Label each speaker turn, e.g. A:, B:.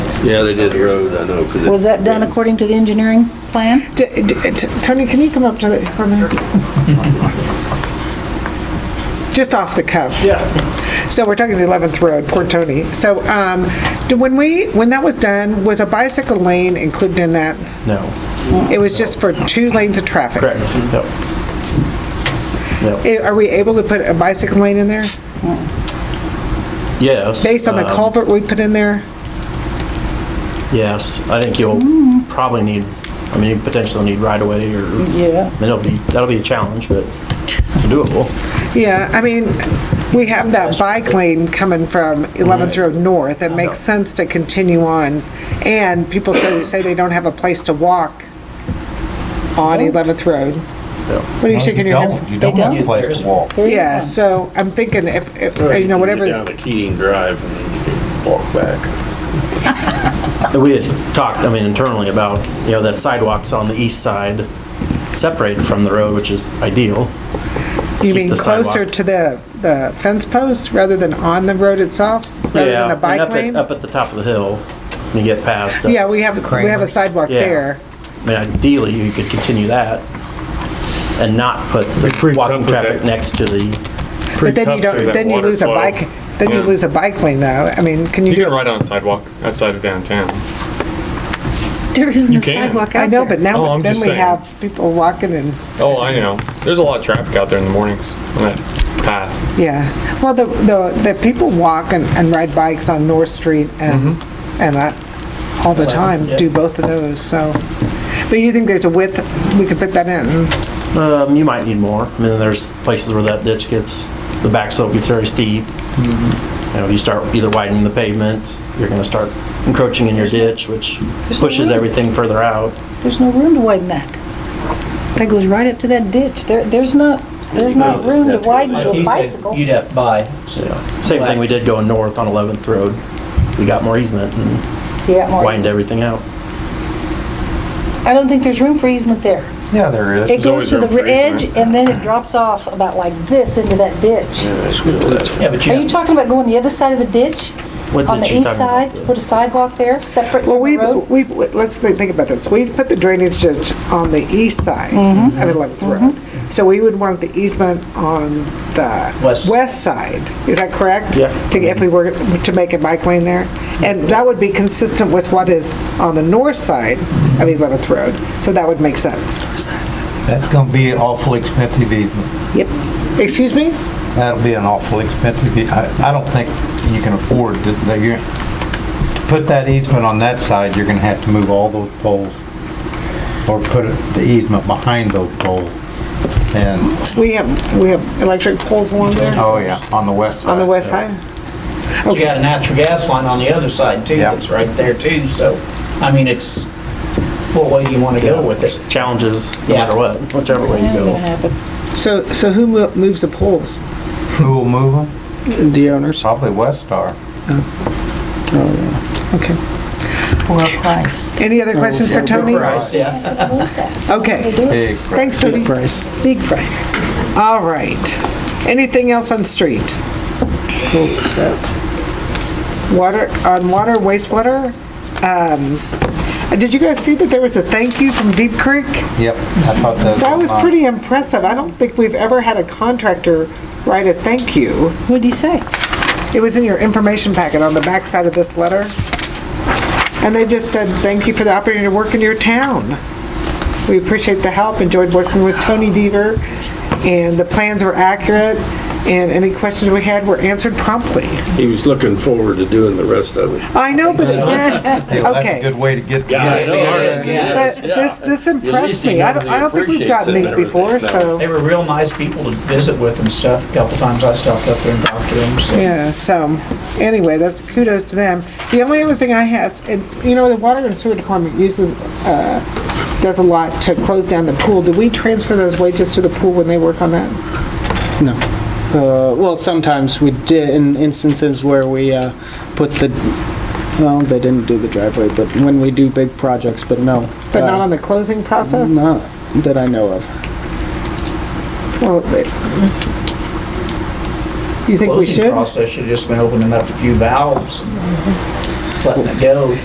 A: Yeah, they did the road, I know, because.
B: Was that done according to the engineering plan?
C: D- d- t- Tony, can you come up to the, come here? Just off the cuff. Yeah. So we're talking the 11th Road, poor Tony. So um, do- when we, when that was done, was a bicycle lane included in that?
D: No,
C: It was just for two lanes of traffic?
D: correct, yep. Yep.
C: I- Are we able to put a bicycle lane in there,
D: Yes.
C: based on the
D: um,
C: culvert we put in there?
D: Yes, I think you'll probably need, I mean, you potentially need right away or.
B: Yeah.
D: That'll be, that'll be a challenge, but doable.
C: Yeah, I mean, we have that bike lane coming from 11th Road North. It makes sense to continue on. And people say, say they don't have a place to walk on 11th Road. What are you shaking your head?
E: Don't, you don't have a place to walk.
B: There you
C: Yeah,
B: go.
C: so I'm thinking if, if, you know,
A: Down
C: whatever,
A: to Keating Drive and then you can walk back.
D: And We had talked, I mean, internally about, you know, that sidewalks on the east side separated from the road, which is ideal.
C: you
D: keep
C: mean
D: the
C: closer
D: sidewalk.
C: to the, the fence post rather than on the road itself, rather
D: Yeah,
C: than a
D: and
C: bike
D: up at-
C: lane?
D: Up at the top of the hill, when you get past. uh,
C: Yeah, we have, we have a
E: Kramer's.
C: sidewalk
D: Yeah.
C: there.
D: I mean, ideally, you could continue that and not put the
F: pretty
D: walking
F: tough with
D: traffic
F: that.
D: next to the
C: But then you
F: tough
C: don't,
F: through that
C: then you
F: water
C: lose a
F: flow.
C: bike, then you
F: Yeah.
C: lose a bike lane though. I mean, can you
F: You
C: do
F: can ride on a sidewalk outside of downtown.
B: There isn't
F: You
B: a
F: can.
B: sidewalk
C: I
B: out
C: know, but
B: there.
F: Oh,
C: now,
F: I'm
C: then
F: just
C: we
F: saying.
C: have people walking and,
F: Oh, I know. There's a lot of traffic out there in the mornings on that path.
C: yeah. Well, the, the, the people walk and, and ride bikes on North Street and,
F: Mm-hmm.
C: and I, all the time, do both of those, so. But you think there's a width, we could put that in?
D: Um, you might need more. I mean, there's places where that ditch gets, the back slope gets very steep. You know, if you start either widening the pavement, you're gonna start encroaching in your ditch, which
B: no
D: pushes
B: room.
D: everything further out.
B: There's no room to widen that. That goes right up to that ditch. There, there's not, there's not room to widen to
G: Like
B: a
G: he said,
B: bicycle.
G: You'd have to buy.
D: So, Same thing we did going north on 11th Road. We got more easement and
B: Yeah, Marty.
D: widened everything out.
B: I don't think there's room for easement there.
E: Yeah, there is.
B: It goes
F: always
B: to the
F: room for
B: edge
F: easement.
B: and then it drops off about like this into that ditch.
G: Yeah, but
B: Are you talking about going the other side of the ditch?
D: What
B: On
D: ditch
B: the
D: you
B: east
D: talking
B: side,
D: about?
B: to put a sidewalk there, separate
C: Well,
B: from the
C: we,
B: road?
C: we, let's thi- think about this. We put the drainage ditch on the east side of 11th Road. So we would want the easement on the
G: West.
C: west side, is that correct?
D: Yeah.
C: To, if we were to make a bike lane there? And that would be consistent with what is on the north side of 11th Road, so that would make sense.
E: That's gonna be an awful expensive easement.
C: Yep. Excuse me?
E: That'll be an awful expensive, e- I, I don't think you can afford to, that you're, to put that easement on that side, you're gonna have to move all those poles or put the easement behind those poles. And,
C: We have, we have electric poles along there,
E: oh yeah, on the west side.
C: on the west side?
G: you got a natural gas line on the other side too,
E: Yeah.
G: that's right there too, so, I mean, it's, what way do you wanna go with it?
D: There's Challenges, no
G: Yeah.
D: matter what, whichever way you
B: Ain't gonna
D: go.
B: happen.
C: So, so who mo- moves the poles?
E: Who will move them?
C: The owners.
E: Probably West Star.
C: Okay.
B: For a price.
C: Any other questions for Tony?
G: Right, yeah.
C: Okay.
E: Big.
C: Thanks, Tony.
B: Big price.
C: All right. Anything else on street? Water, on water, wastewater? Um, Did you guys see that there was a thank you from Deep Creek?
E: Yep, I thought that. uh,
C: That was pretty impressive. I don't think we've ever had a contractor write a thank you.
B: What'd he say?
C: It was in your information packet on the backside of this letter. And they just said, "Thank you for the opportunity to work in your town. We appreciate the help, enjoyed working with Tony Deaver, and the plans were accurate, and any questions we had were answered promptly."
A: He was looking forward to doing the rest of it.
C: I know, but
E: Yeah, well, That's
C: okay.
E: a good way to get.
A: I know.
C: but this this impressed me. I don't I don't think we've gotten these before,
G: They
C: so,
G: were real nice people to visit with and stuff, a couple times I stopped up there and talked to them, so.
C: yeah, Uh, so, anyway, that's kudos to them. The only other thing I have, and, you know, the Water and Sewer Department uses uh, does a lot to close down the pool. Do we transfer those wages to the pool when they work on that?
H: No. Uh, Well, sometimes we did, in instances where we uh, put the, well, they didn't do the driveway, but when we do big projects, but no.
C: But not
H: Uh,
C: on the closing process?
H: Not that I know of.
C: Well, it- You think we
G: Closing
C: should?
G: Process, should have just been opening up a few valves and letting it go.